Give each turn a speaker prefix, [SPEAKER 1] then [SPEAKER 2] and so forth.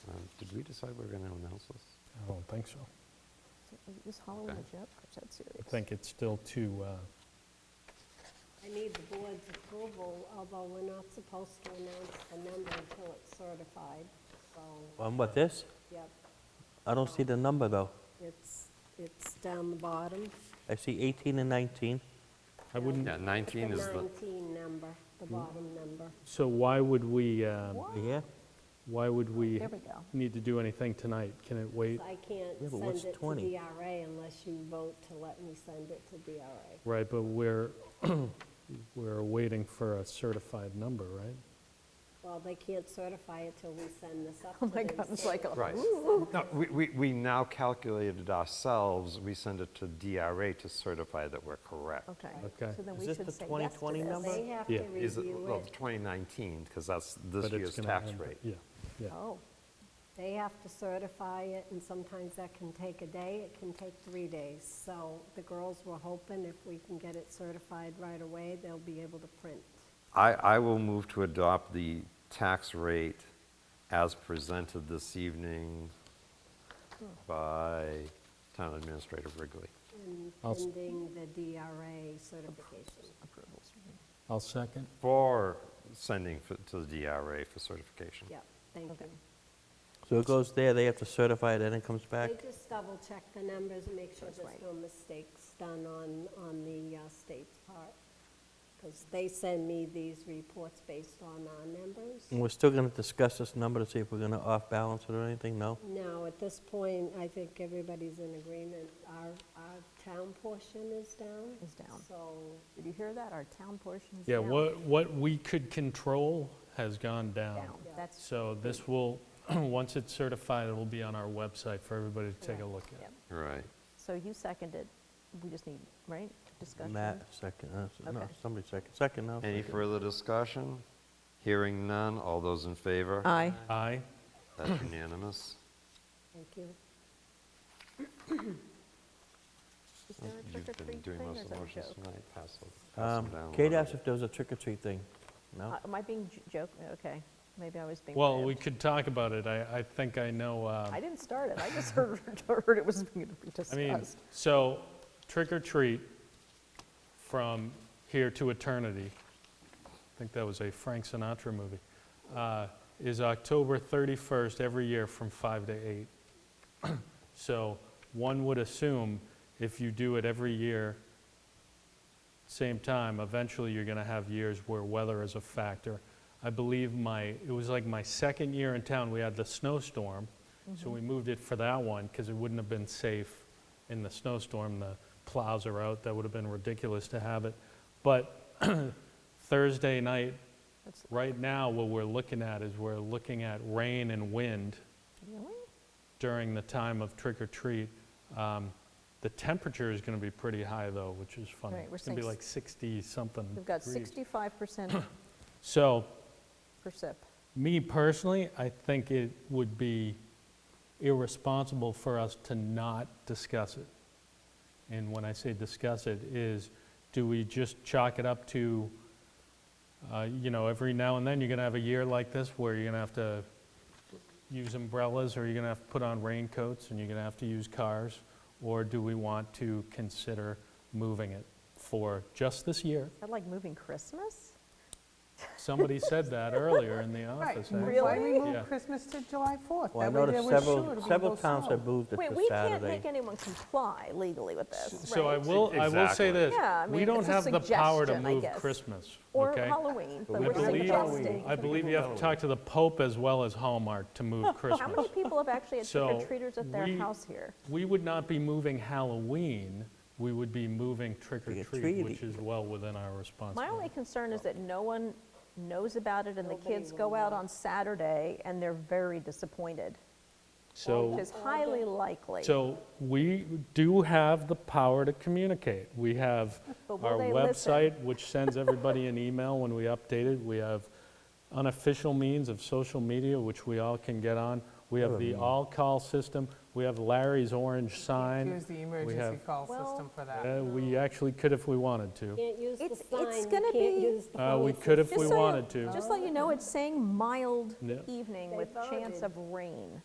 [SPEAKER 1] Um, Did we decide we're going to announce this?
[SPEAKER 2] I don't think so.
[SPEAKER 3] Is Halloween
[SPEAKER 1] Okay.
[SPEAKER 3] a joke? Is that serious?
[SPEAKER 2] I think it's still too, uh,
[SPEAKER 4] I need the board's approval, although we're not supposed to announce the number until it's certified, so,
[SPEAKER 5] On what, this?
[SPEAKER 4] yep,
[SPEAKER 5] I don't see the number, though.
[SPEAKER 4] it's, it's down the bottom.
[SPEAKER 5] I see 18 and 19.
[SPEAKER 2] I wouldn't,
[SPEAKER 1] Yeah, 19 is the, Hmm?
[SPEAKER 4] 19 number, the bottom number.
[SPEAKER 2] so why would we, uh,
[SPEAKER 3] Oh.
[SPEAKER 5] Yeah?
[SPEAKER 2] why would we
[SPEAKER 3] There we go.
[SPEAKER 2] need to do anything tonight? Can it wait?
[SPEAKER 4] I
[SPEAKER 5] Yeah,
[SPEAKER 4] can't
[SPEAKER 5] but what's
[SPEAKER 4] send it to
[SPEAKER 5] 20?
[SPEAKER 4] DRA unless you vote to let me send it to DRA.
[SPEAKER 2] Right, but we're, we're waiting for a certified number, right?
[SPEAKER 4] Well, they can't certify it till we send this up to
[SPEAKER 3] Oh
[SPEAKER 4] them.
[SPEAKER 3] my God, it's
[SPEAKER 4] so-
[SPEAKER 3] like, a-
[SPEAKER 1] right. No, we, we, we now calculated ourselves, we send it to DRA to certify that we're correct.
[SPEAKER 3] okay.
[SPEAKER 2] Okay.
[SPEAKER 3] So then
[SPEAKER 5] Is
[SPEAKER 3] we
[SPEAKER 5] this
[SPEAKER 3] should
[SPEAKER 5] the
[SPEAKER 3] say yes to
[SPEAKER 5] 2020
[SPEAKER 3] this.
[SPEAKER 5] number?
[SPEAKER 4] They have to
[SPEAKER 2] Yeah.
[SPEAKER 1] Is it, well,
[SPEAKER 4] review it.
[SPEAKER 1] 2019, because that's
[SPEAKER 2] But
[SPEAKER 1] this
[SPEAKER 2] it's
[SPEAKER 1] year's
[SPEAKER 2] gonna
[SPEAKER 1] tax
[SPEAKER 2] end-
[SPEAKER 1] rate.
[SPEAKER 2] Yeah, yeah.
[SPEAKER 3] Oh,
[SPEAKER 4] They have to certify it, and sometimes that can take a day, it can take three days. So the girls were hoping if we can get it certified right away, they'll be able to print.
[SPEAKER 1] I, I will move to adopt the tax rate as presented this evening
[SPEAKER 4] Hmm.
[SPEAKER 1] by Town Administrator Wrigley.
[SPEAKER 4] And
[SPEAKER 2] I'll s-
[SPEAKER 4] pending the DRA certification.
[SPEAKER 3] approvals.
[SPEAKER 2] I'll second.
[SPEAKER 1] For sending f- to the DRA for certification.
[SPEAKER 4] Yep, thank you.
[SPEAKER 5] So it goes there, they have to certify it, and it comes back?
[SPEAKER 4] They just double-check the numbers and make sure
[SPEAKER 3] That's
[SPEAKER 4] there's
[SPEAKER 3] right.
[SPEAKER 4] no mistakes done on, on the uh, state's part. Because they send me these reports based on our numbers.
[SPEAKER 5] And we're still going to discuss this number to see if we're going to off-balance it or anything? No?
[SPEAKER 4] No, at this point, I think everybody's in agreement. Our, our town portion is down.
[SPEAKER 3] Is down.
[SPEAKER 4] So,
[SPEAKER 3] Did you hear that? Our town portion's
[SPEAKER 2] Yeah,
[SPEAKER 3] down.
[SPEAKER 2] what, what we could control has gone down.
[SPEAKER 3] Down. That's,
[SPEAKER 2] So this will, once it's certified, it'll be on our website for everybody to take a look at.
[SPEAKER 3] Yep.
[SPEAKER 1] Right.
[SPEAKER 3] so you seconded, we just need, right, discussion?
[SPEAKER 5] Matt, second, uh, s- no,
[SPEAKER 3] Okay.
[SPEAKER 5] somebody second, second, no.
[SPEAKER 1] Any
[SPEAKER 5] second.
[SPEAKER 1] further discussion? Hearing none, all those in favor?
[SPEAKER 3] Aye.
[SPEAKER 2] Aye,
[SPEAKER 1] That's unanimous.
[SPEAKER 4] thank you.
[SPEAKER 3] Is there a
[SPEAKER 1] You've
[SPEAKER 3] trick or
[SPEAKER 1] been
[SPEAKER 3] treat
[SPEAKER 1] doing
[SPEAKER 3] thing or
[SPEAKER 1] most
[SPEAKER 3] is
[SPEAKER 1] of the
[SPEAKER 3] that a
[SPEAKER 1] motions
[SPEAKER 3] joke?
[SPEAKER 1] tonight, pass them- pass
[SPEAKER 5] Um,
[SPEAKER 1] them down.
[SPEAKER 5] Kate
[SPEAKER 1] whatever.
[SPEAKER 5] asked if there was a trick-or-treat thing. No?
[SPEAKER 3] Uh, Am I being j- joke, okay, maybe I was being.
[SPEAKER 2] well, we
[SPEAKER 3] ribbed.
[SPEAKER 2] could talk about it, I, I think I know. uh,
[SPEAKER 3] I didn't start it, I just heard, heard it was being
[SPEAKER 2] I mean,
[SPEAKER 3] discussed.
[SPEAKER 2] so trick or treat from here to eternity, I think that was a Frank Sinatra movie, uh, is October 31st every year from 5 to 8. So one would assume if you do it every year, same time, eventually you're going to have years where weather is a factor. I believe my, it was like my second year in town, we had the snowstorm, so
[SPEAKER 3] Mm-hmm.
[SPEAKER 2] we moved it for that one because it wouldn't have been safe in the snowstorm. The plows are out, that would have been ridiculous to have it. But Thursday night,
[SPEAKER 3] That's-
[SPEAKER 2] right now, what we're looking at is we're looking at rain and wind
[SPEAKER 3] Really?
[SPEAKER 2] during the time of trick or treat. Um, The temperature is going to be pretty high though, which is funny.
[SPEAKER 3] Right, we're
[SPEAKER 2] It's going to be
[SPEAKER 3] saying
[SPEAKER 2] like 60 something.
[SPEAKER 3] We've got
[SPEAKER 2] degrees.
[SPEAKER 3] 65%
[SPEAKER 2] So
[SPEAKER 3] per sip.
[SPEAKER 2] me personally, I think it would be irresponsible for us to not discuss it. And when I say discuss it, is do we just chalk it up to, uh, you know, every now and then, you're going to have a year like this where you're going to have to use umbrellas, or you're going to have to put on raincoats, and you're going to have to use cars? Or do we want to consider moving it for just this year?
[SPEAKER 3] I'd like moving Christmas?
[SPEAKER 2] Somebody said that earlier in the office. actually.
[SPEAKER 6] Why we
[SPEAKER 2] Yeah.
[SPEAKER 6] move Christmas to July 4th?
[SPEAKER 5] Well, I
[SPEAKER 6] That way
[SPEAKER 5] noticed
[SPEAKER 6] there was sure
[SPEAKER 5] several,
[SPEAKER 6] to be
[SPEAKER 5] several
[SPEAKER 6] no
[SPEAKER 5] towns
[SPEAKER 6] snow.
[SPEAKER 5] have moved it
[SPEAKER 3] Wait,
[SPEAKER 5] to
[SPEAKER 3] we can't make
[SPEAKER 5] Saturday.
[SPEAKER 3] anyone comply legally with this,
[SPEAKER 2] So I
[SPEAKER 3] right?
[SPEAKER 2] will, I will say
[SPEAKER 1] Exactly.
[SPEAKER 2] this,
[SPEAKER 3] Yeah, I
[SPEAKER 2] we
[SPEAKER 3] mean,
[SPEAKER 2] don't
[SPEAKER 3] it's a
[SPEAKER 2] have the power to
[SPEAKER 3] suggestion, I
[SPEAKER 2] move
[SPEAKER 3] guess.
[SPEAKER 2] Christmas,
[SPEAKER 3] Or
[SPEAKER 2] okay?
[SPEAKER 3] Halloween,
[SPEAKER 1] But
[SPEAKER 3] but
[SPEAKER 1] we
[SPEAKER 3] we're
[SPEAKER 1] can leave
[SPEAKER 3] suggesting.
[SPEAKER 2] I believe you have to talk to the Pope as well as Hallmark to move
[SPEAKER 3] How many
[SPEAKER 2] Christmas.
[SPEAKER 3] people have actually had trick or
[SPEAKER 2] So,
[SPEAKER 3] treaters at their
[SPEAKER 2] we-
[SPEAKER 3] house here?
[SPEAKER 2] We would not be moving Halloween, we would be moving trick or treat,
[SPEAKER 5] Trick-or-treat.
[SPEAKER 2] which is well within our
[SPEAKER 3] My only
[SPEAKER 2] responsibility.
[SPEAKER 3] concern is that no one knows about it and the
[SPEAKER 4] Nobody
[SPEAKER 3] kids
[SPEAKER 4] will
[SPEAKER 3] go out
[SPEAKER 4] know.
[SPEAKER 3] on Saturday and they're very disappointed,
[SPEAKER 2] So.
[SPEAKER 3] which is highly likely.
[SPEAKER 2] So we do have the power to communicate. We have
[SPEAKER 3] But will
[SPEAKER 2] our
[SPEAKER 3] they listen?
[SPEAKER 2] website, which sends everybody an email when we update it. We have unofficial means of social media, which we all can get on. We have the all-call system. We have Larry's orange sign.
[SPEAKER 6] Use the emergency
[SPEAKER 2] have-
[SPEAKER 6] call
[SPEAKER 3] Well-
[SPEAKER 6] system for that.
[SPEAKER 2] Uh, We actually could if we wanted to.
[SPEAKER 4] Can't use the
[SPEAKER 3] It's- it's
[SPEAKER 4] sign,
[SPEAKER 3] gonna
[SPEAKER 4] you can't
[SPEAKER 3] be-
[SPEAKER 4] use the
[SPEAKER 2] Uh,
[SPEAKER 4] phone.
[SPEAKER 2] We could if
[SPEAKER 3] Just
[SPEAKER 2] we
[SPEAKER 3] so you-
[SPEAKER 2] wanted to.
[SPEAKER 3] Just so you know, it's saying mild
[SPEAKER 2] No.
[SPEAKER 3] evening
[SPEAKER 4] They
[SPEAKER 3] with chance
[SPEAKER 4] voted.
[SPEAKER 3] of rain.